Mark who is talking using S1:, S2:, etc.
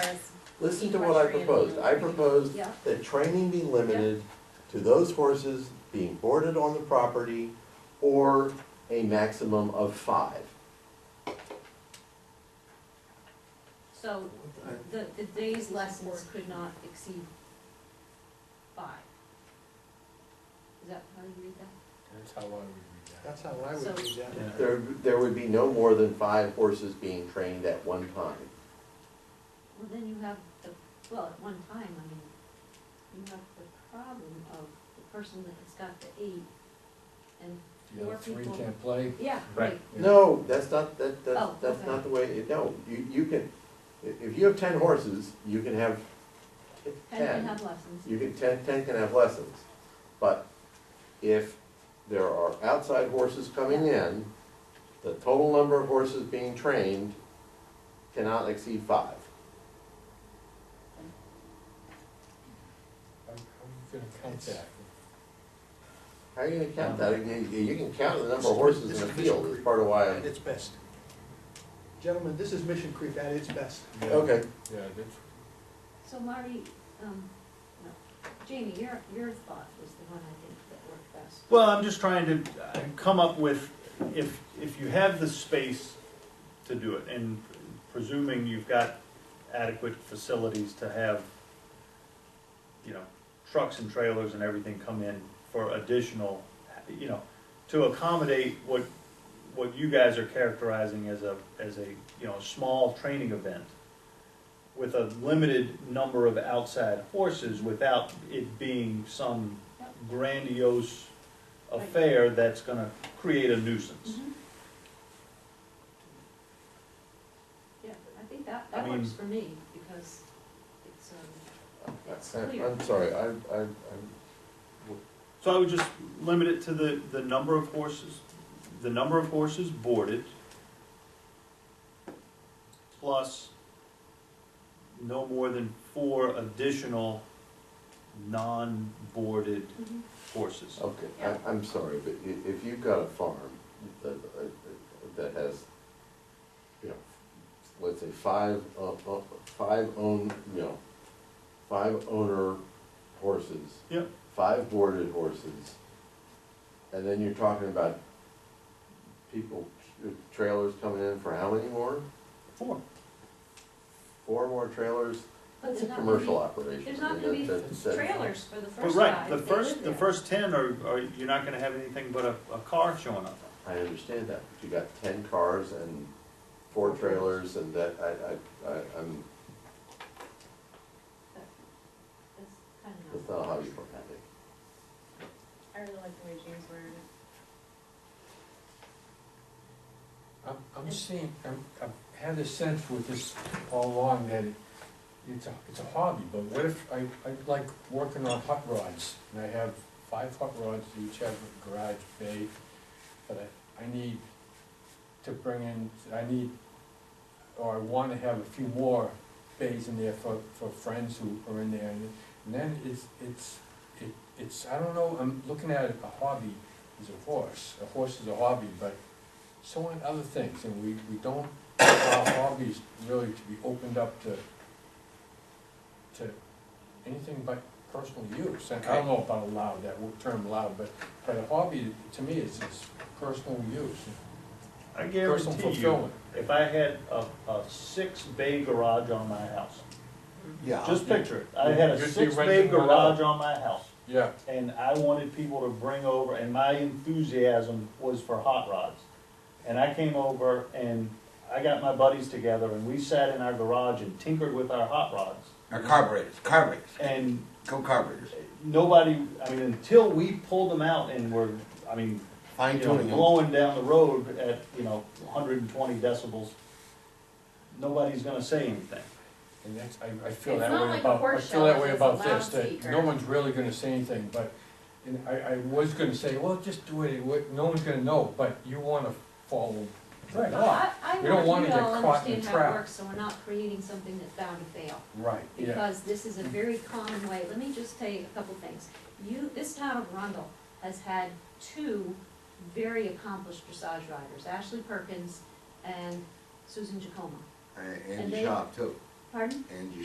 S1: Listen to what I proposed. I proposed
S2: Yeah.
S1: that training be limited to those horses being boarded on the property or a maximum of five.
S2: So the, the day's lessons could not exceed five. Is that how you read that?
S3: That's how I would read that.
S4: That's how I
S2: So-
S4: would read that.
S1: There, there would be no more than five horses being trained at one time.
S2: Well, then you have the, well, at one time, I mean, you have the problem of the person that's got the eight and
S3: The
S2: four
S3: other three
S2: people.
S3: can't play.
S2: Yeah,
S3: Right.
S2: right,
S1: No, that's not, that, that's,
S2: Oh,
S1: that's
S2: okay.
S1: not the way, it- no, you, you can, i- if you have ten horses, you can have
S2: and can have lessons.
S1: You can, ten, ten can have lessons, but if there are outside horses coming in, the total number of horses being trained cannot exceed five.
S3: How how are you gonna count that?
S1: How are you gonna count that? You, you- you can count the number of horses in a field, is part of why
S5: At
S1: I'm,
S5: its best.
S4: Gentlemen, this is Mission Creek at its best.
S3: Yeah.
S1: okay.
S3: Yeah, that's,
S2: So Marty, um, no, Jamie, your, your thought was the one I think that worked best.
S6: Well, I'm just trying to uh, come up with, if, if you have the space to do it, and presuming you've got adequate facilities to have, you know, trucks and trailers and everything come in for additional, you know, to accommodate what, what you guys are characterizing as a, as a, you know, small training event with a limited number of outside horses without it being some
S2: Yep.
S6: grandiose affair that's gonna create a nuisance.
S2: Mhm. Yeah, I think that,
S6: I
S2: that
S6: mean-
S2: works for me, because it's, um,
S1: I- I'm sorry, I, I, I'm,
S6: So I would just limit it to the, the number of horses, the number of horses boarded, plus no more than four additional non-boarded horses.
S3: Oh.
S1: okay, I, I'm sorry, but i- if you've got a farm that, that has, you know, let's say five, uh, uh, five own, you know, five owner horses.
S6: Yep.
S1: Five boarded horses, and then you're talking about people, uh, trailers coming in for how many more?
S6: Four.
S1: Four more trailers?
S2: but
S1: It's a
S2: they're not
S1: commercial
S2: gonna
S1: operation.
S2: be, there's not
S1: I mean,
S2: gonna be
S1: that- that- that-
S2: trailers for the
S6: But
S2: first
S6: right,
S2: five,
S6: the
S2: they
S6: first,
S2: live
S6: the
S2: there.
S6: first ten are, are, you're not gonna have anything but a, a car showing up.
S1: I understand that, but you got ten cars and four trailers and that, I, I, I, I'm,
S2: That's kind of
S1: that's
S2: not-
S1: not how you work it.
S7: I really like the way James worded it.
S3: I'm, I'm seeing, I'm, I've had a sense with this all along that it, it's a, it's a hobby, but what if, I, I like working on hot rods, and I have five hot rods, each have a garage bay, but I, I need to bring in, I need, or I wanna have a few more bays in there for, for friends who are in there, and and then it's, it's, it, it's, I don't know, I'm looking at it, a hobby is a horse, a horse is a hobby, but so on other things, and we, we don't, allow hobbies really to be opened up to, to anything but personal use, and I don't know about allowed, that wo- term allowed, but, but a hobby, to me, is, is personal use,
S6: I
S3: personal
S6: guarantee you,
S3: fulfillment.
S6: if I had a, a six bay garage on my house,
S1: Yeah.
S3: Oh,
S6: just picture it, I had
S3: You'd
S6: a
S3: be
S6: six bay
S3: renting one out.
S6: garage on my house.
S3: Yeah,
S6: and I wanted people to bring over, and my enthusiasm was for hot rods. And I came over and I got my buddies together and we sat in our garage and tinkered with our hot rods.
S5: Or carburetors, carburetors,
S6: And
S5: go carburetors.
S6: nobody, I mean, until we pulled them out and were, I mean,
S5: Fine
S6: you know,
S5: tuning them.
S6: blowing down the road at, you know, hundred and twenty decibels, nobody's gonna say anything.
S3: and that's, I, I feel
S7: It's
S3: that
S7: not
S3: way
S7: like a
S3: about, I
S7: horse
S3: feel
S7: show,
S3: that way
S7: it's
S3: about
S7: a
S3: this, that
S7: loudspeaker.
S3: no one's really gonna say anything, but, and I, I was gonna say, well, just do it, it, would- no one's gonna know, but you wanna follow the
S2: Well,
S3: law.
S2: I, I
S3: We don't
S2: want
S3: wanna
S2: you
S3: get
S2: to all
S3: caught in a
S2: understand how it
S3: trap.
S2: works, so we're not creating something that's bound to fail.
S3: Right, yeah.
S2: because this is a very common way, let me just tell you a couple things. You, this town of Arundel has had two very accomplished dressage riders, Ashley Perkins and Susan Jacoma.
S5: And
S2: And
S5: Angie
S2: they-
S5: Shop too,
S2: Pardon?
S5: Angie